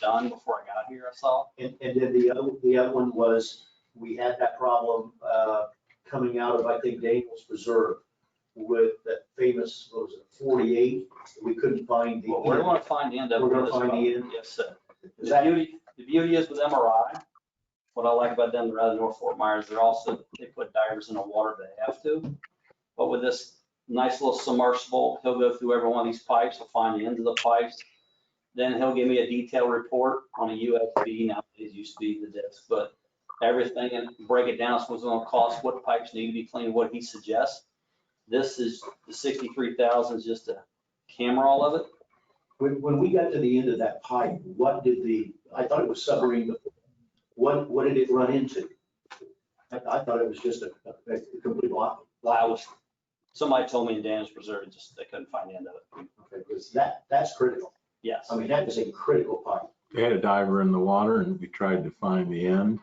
done before I got here, I saw. And, and then the other, the other one was, we had that problem, uh, coming out of, I think, Daniel's Preserve with that famous, what was it, forty-eight? We couldn't find the. Well, we're gonna find the end of it. We're gonna this find the one. end. Yes, sir. Is The that- beauty, the beauty is with MRI, what I like about them rather than North Fort Myers, they're also, they put divers in the water if they have to. But with this nice little submersible, he'll go through every one of these pipes, he'll find the ends of the pipes. Then he'll give me a detailed report on a USB, now it used to be the disk, but everything and break it down, so it's gonna cost, what pipes need to be cleaned, what he suggests. This is, the sixty-three thousand is just to camera all of it. When, when we got to the end of that pipe, what did the, I thought it was submarine, but what, what did it run into? I, I thought it was just a, a a complete block. I was, somebody told me in Daniels Preserve, it just, they couldn't find the end of it. Okay, because that, that's critical. Yes. I mean, that is a critical pipe. We had a diver in the water and we tried to find the end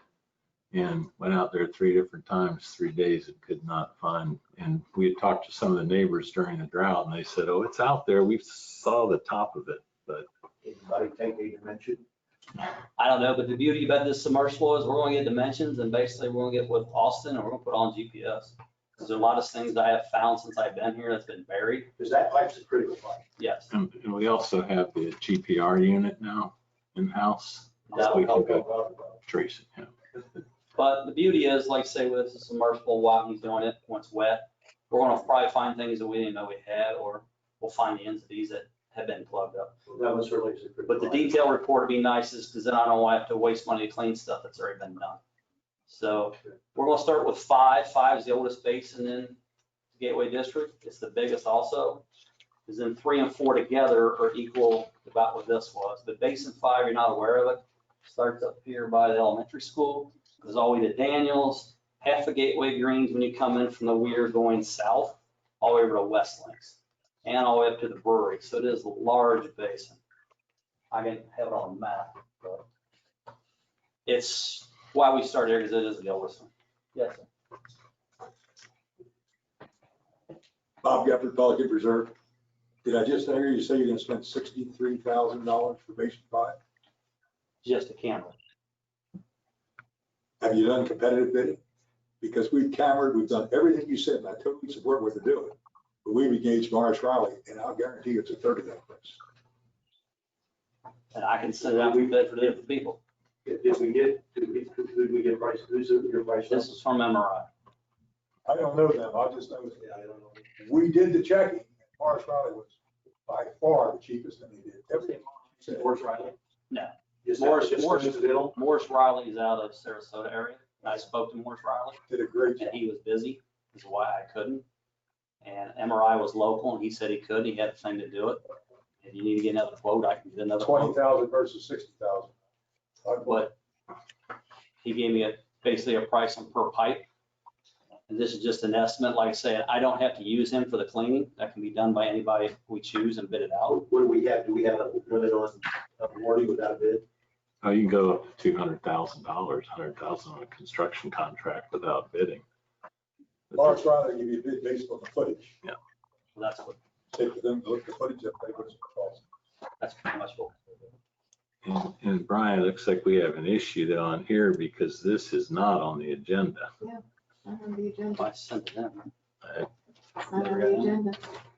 and went out there three different times, three days and could not find. And we had talked to some of the neighbors during the drought and they said, oh, it's out there. We saw the top of it. Anybody take a dimension? I don't know, but the beauty about this submersible is we're gonna get dimensions and basically we're gonna get with Austin and we're gonna put on GPS. Cause there are a lot of things that I have found since I've been here that's been buried. Because that pipe's a critical pipe. Yes. And and we also have the GPR unit now in-house. That We would can help. go trace it. yeah. But the beauty is, like say with this submersible, while he's doing it, once wet, we're gonna probably find things that we didn't know we had, or we'll find the ends of these that have been plugged up. That was certainly a critical. But the pipe. detail report would be nice is because then I don't want to have to waste money to clean stuff that's already been done. So we're gonna start with five. Five is the oldest basin in Gateway District. It's the biggest also. Because then three and four together are equal to about what this was. But basin five, you're not aware of it. Starts up here by the elementary school, goes all the way to Daniels, half of Gateway Greens when you come in from the weir going south, all the way over to West Links and all the way up to the brewery. So it is a large basin. I didn't have it on the map, but it's why we started here, because it is the oldest one. Yes, sir. Bob Gepper, Pelican Reserve. Did I just hear you say you're gonna spend sixty-three thousand dollars for Basin Five? just a camera. Have you done competitive bidding? Because we've cambered, we've done everything you said, and I totally support what they're doing. But we've engaged Morris Riley, and I'll guarantee it's a third of that price. And I can send it out, we bid for different people. Did did we get, did we, did we get price, who's your price? This is from MRI. I don't know them, I just know, Yeah, I don't know. we did the checking, and Morris Riley was by far the cheapest thing they did. Everything. Is it Morris Riley? No. Just- Morris- just Morris- coincidental? Morris Riley is out of Sarasota area. and I spoke to Morris Riley Did a great job. and he was busy, is why I couldn't. And MRI was local and he said he could, he had a thing to do it. If you need to get another quote, I can get another quote. Twenty thousand versus sixty thousand. but he gave me a, basically a price on per pipe. And this is just an estimate, like I said, I don't have to use him for the cleaning, that can be done by anybody we choose and bid it out. What do we have, do we have a limit on awarding without a bid? Oh, you can go up to two hundred thousand dollars, hundred thousand on a construction contract without bidding. But Morris Riley gave you a bid based on the footage. So That's what, take them, look the footage up, they would have cost. that's pretty much what. And, and Brian, it looks like we have an issue though on here because this is not on the agenda. Not on the agenda, I sent it in. It's not on the agenda.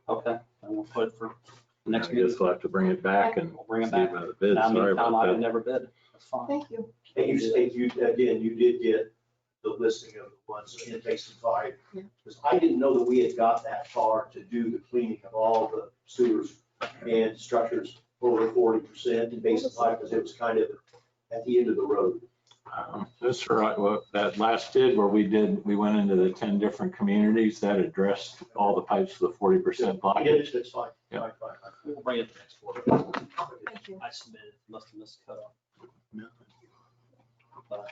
Okay, and we'll put it for the I next meeting. guess we'll have to bring it back and. We'll bring it see back. about the bid. Now, I mean, Sorry Tom, I about would that. never bid, that's fine. Thank you. And you say you, again, you did get the listing of the ones in basin five. Yeah. Because I didn't know that we had got that far to do the cleaning of all the sewers and structures over forty percent in basin five, because it was kind of at the end of the road. Um, That's right. Well, that last bid where we did, we went into the ten different communities that addressed all the pipes to the forty percent block. Yeah, it's- it's fine. Yeah. Fine, fine, fine. We'll bring it to next quarter. Thank you. I submitted, must have missed cut off. No. But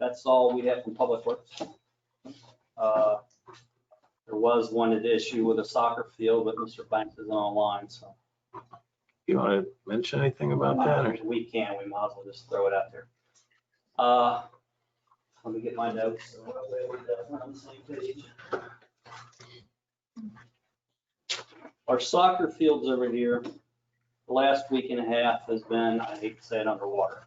That's all we have from Public Works. Uh, There was one at issue with a soccer field, but Mr. Banks is online, so You want to mention anything about that? or- if we can, we might as well just throw it out there. Uh, Let me get my notes. so hopefully we're definitely on the same page. Our soccer fields over here, the last week and a half has been, I hate to say it, underwater.